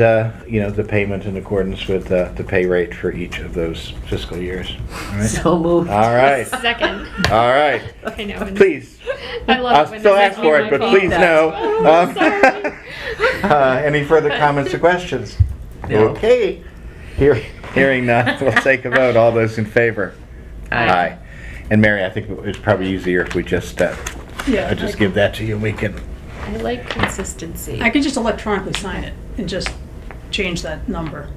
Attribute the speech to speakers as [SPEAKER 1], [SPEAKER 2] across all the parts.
[SPEAKER 1] the, you know, the payment in accordance with uh, the pay rate for each of those fiscal years. All right?
[SPEAKER 2] So moved.
[SPEAKER 1] All right,
[SPEAKER 3] Second.
[SPEAKER 1] all right.
[SPEAKER 3] I know. and
[SPEAKER 1] Please,
[SPEAKER 3] I love it
[SPEAKER 1] I'll
[SPEAKER 3] when
[SPEAKER 1] still
[SPEAKER 3] they
[SPEAKER 1] ask
[SPEAKER 3] make
[SPEAKER 1] for
[SPEAKER 3] me
[SPEAKER 1] it, but
[SPEAKER 3] my
[SPEAKER 1] please
[SPEAKER 3] fault.
[SPEAKER 1] no. Um,
[SPEAKER 3] Sorry.
[SPEAKER 1] uh, Any further comments or questions?
[SPEAKER 2] No.
[SPEAKER 1] Okay. Hear- Hearing none, we'll take a vote. All those in favor? Aye. And Mary, I think it's probably easier if we just, uh, I just give that to you and we can,
[SPEAKER 3] I like consistency.
[SPEAKER 4] I could just electronically sign it and just change that number,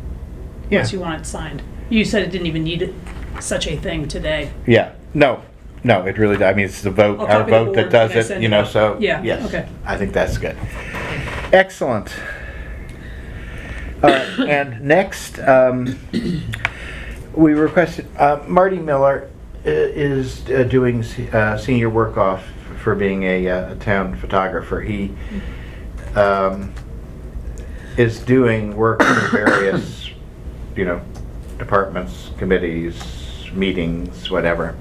[SPEAKER 1] yeah,
[SPEAKER 4] once you want it signed. You said it didn't even need it- such a thing today.
[SPEAKER 1] yeah. No, no, it really, I mean, it's the vote,
[SPEAKER 4] I'll
[SPEAKER 1] our
[SPEAKER 4] copy the
[SPEAKER 1] vote that
[SPEAKER 4] board and I
[SPEAKER 1] does it,
[SPEAKER 4] send
[SPEAKER 1] you
[SPEAKER 4] it
[SPEAKER 1] know,
[SPEAKER 4] out.
[SPEAKER 1] so.
[SPEAKER 4] Yeah,
[SPEAKER 1] yes,
[SPEAKER 4] okay.
[SPEAKER 1] I think that's good. Excellent. All right, and next, um, we requested, uh, Marty Miller i- is uh, doing se- uh, senior work off for being a uh, a town photographer. He um, is doing work for various, you know, departments, committees, meetings, whatever.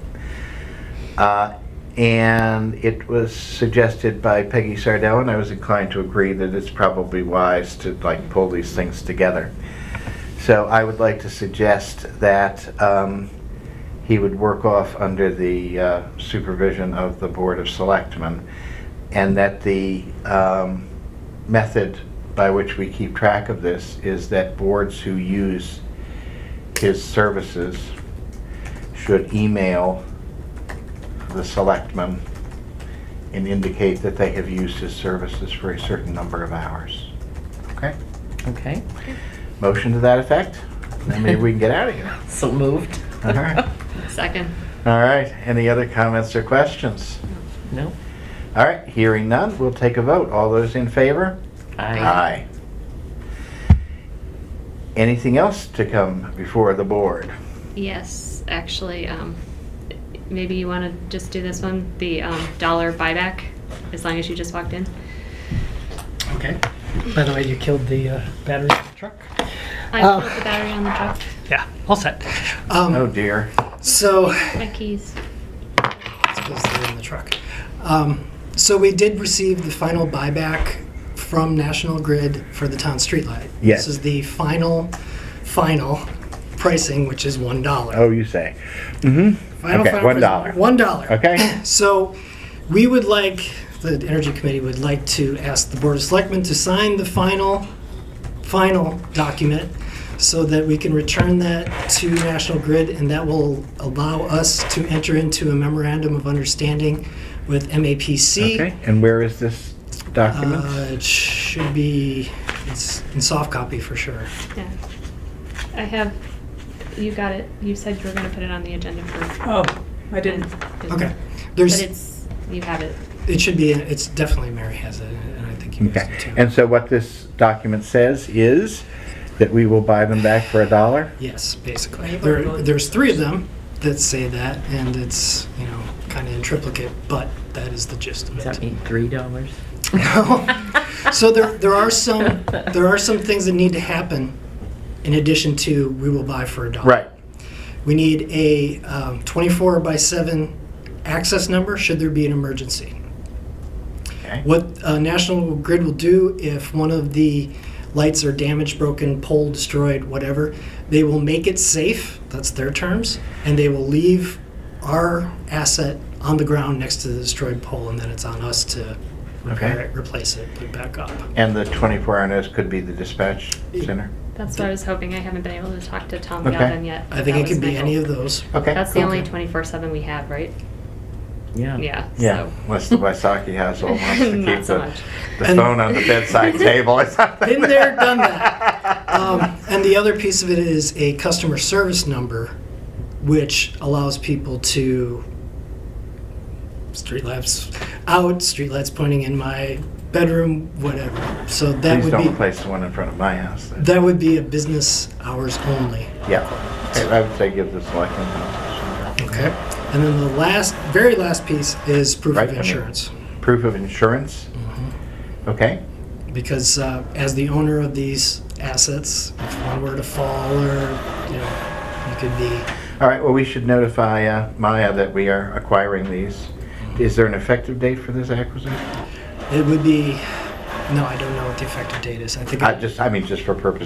[SPEAKER 1] Uh, And it was suggested by Peggy Sardell, and I was inclined to agree that it's probably wise to like pull these things together. So I would like to suggest that um, he would work off under the uh, supervision of the Board of Selectmen, and that the um, method by which we keep track of this is that boards who use his services should email the selectmen and indicate that they have used his services for a certain number of hours. Okay?
[SPEAKER 2] Okay,
[SPEAKER 1] Motion to that effect? Then maybe we can get out of here.
[SPEAKER 2] so moved.
[SPEAKER 1] All right.
[SPEAKER 3] Second.
[SPEAKER 1] All right, any other comments or questions?
[SPEAKER 2] No?
[SPEAKER 1] All right, hearing none, we'll take a vote. All those in favor? Uh,
[SPEAKER 2] Aye.
[SPEAKER 1] Anything else to come before the board?
[SPEAKER 3] Yes, actually, um, maybe you want to just do this one, the um, dollar buyback, as long as you just walked in.
[SPEAKER 5] Okay. By the way, you killed the uh, battery in the truck.
[SPEAKER 3] I
[SPEAKER 5] Oh.
[SPEAKER 3] put the battery on the truck.
[SPEAKER 5] Yeah, all set.
[SPEAKER 1] Oh
[SPEAKER 5] Um,
[SPEAKER 1] dear.
[SPEAKER 5] so,
[SPEAKER 3] My keys.
[SPEAKER 5] I suppose they're in the truck. Um, so we did receive the final buyback from National Grid for the town streetlight.
[SPEAKER 1] Yes.
[SPEAKER 5] This is the final, final pricing, which is one dollar.
[SPEAKER 1] Oh, you say. Mm-hmm.
[SPEAKER 5] Final
[SPEAKER 1] okay,
[SPEAKER 5] final
[SPEAKER 1] $1.
[SPEAKER 5] pricing, One dollar.
[SPEAKER 1] Okay.
[SPEAKER 5] So we would like, the Energy Committee would like to ask the Board of Selectmen to sign the final, final document so that we can return that to National Grid and that will allow us to enter into a memorandum of understanding with MAPC.
[SPEAKER 1] Okay, and where is this document?
[SPEAKER 5] Uh, It should be, it's in soft copy for sure.
[SPEAKER 3] Yeah. I have, you got it. You said you were going to put it on the agenda for.
[SPEAKER 4] Oh, I didn't.
[SPEAKER 5] Okay.
[SPEAKER 3] Mm-hmm. But
[SPEAKER 5] There's,
[SPEAKER 3] it's, you have it.
[SPEAKER 5] it should be, it's definitely, Mary has it and I think you guys do
[SPEAKER 1] Okay,
[SPEAKER 5] too.
[SPEAKER 1] and so what this document says is that we will buy them back for a dollar?
[SPEAKER 5] Yes, basically.
[SPEAKER 4] Right,
[SPEAKER 5] There,
[SPEAKER 4] but-
[SPEAKER 5] there's three of them that say that, and it's, you know, kind of in triplicate, but that is the gist of
[SPEAKER 2] Does that
[SPEAKER 5] it.
[SPEAKER 2] mean three dollars?
[SPEAKER 5] So there, there are some, there are some things that need to happen in addition to we will buy for a dollar.
[SPEAKER 1] Right.
[SPEAKER 5] We need a um, 24 by 7 access number should there be an emergency.
[SPEAKER 1] Okay.
[SPEAKER 5] What uh, National Grid will do if one of the lights are damaged, broken, pole destroyed, whatever, they will make it safe, that's their terms, and they will leave our asset on the ground next to the destroyed pole, and then it's on us to repair
[SPEAKER 1] Okay.
[SPEAKER 5] it, replace it, put it back up.
[SPEAKER 1] And the 24-hour notice could be the dispatch center?
[SPEAKER 3] That's what I was hoping. I haven't been able to talk to Tom
[SPEAKER 1] Okay.
[SPEAKER 3] Galvin yet.
[SPEAKER 5] I think
[SPEAKER 3] That
[SPEAKER 5] it could
[SPEAKER 3] was
[SPEAKER 5] be
[SPEAKER 3] my
[SPEAKER 5] any
[SPEAKER 3] hope.
[SPEAKER 5] of those.
[SPEAKER 1] Okay.
[SPEAKER 3] That's the
[SPEAKER 1] cool.
[SPEAKER 3] only 24/7 we have, right?
[SPEAKER 2] Yeah.
[SPEAKER 3] Yeah.
[SPEAKER 1] Yeah,
[SPEAKER 3] so-
[SPEAKER 1] unless the Waisaki household wants to
[SPEAKER 3] Not
[SPEAKER 1] keep
[SPEAKER 3] so
[SPEAKER 1] the,
[SPEAKER 3] much.
[SPEAKER 1] the
[SPEAKER 5] And-
[SPEAKER 1] phone on the bedside table or something.
[SPEAKER 5] Been there, done that. Um, and the other piece of it is a customer service number, which allows people to street lights out, street lights pointing in my bedroom, whatever. So that
[SPEAKER 1] Please
[SPEAKER 5] would
[SPEAKER 1] don't
[SPEAKER 5] be
[SPEAKER 1] replace the one in front of my house. then.
[SPEAKER 5] that would be a business hours only.
[SPEAKER 1] Yeah, Okay, I would say give the selectmen notice.
[SPEAKER 5] Okay. And then the last, very last piece is proof
[SPEAKER 1] Right, I
[SPEAKER 5] of
[SPEAKER 1] mean-
[SPEAKER 5] insurance.
[SPEAKER 1] Proof of insurance? Okay,
[SPEAKER 5] because uh, as the owner of these assets, if one were to fall or you know, you could be.
[SPEAKER 1] all right, well, we should notify uh, Maya that we are acquiring these. Is there an effective date for this acquisition?
[SPEAKER 5] It would be
[SPEAKER 6] No, I don't know what the effective date is. I think.
[SPEAKER 5] I just, I mean, just for purposes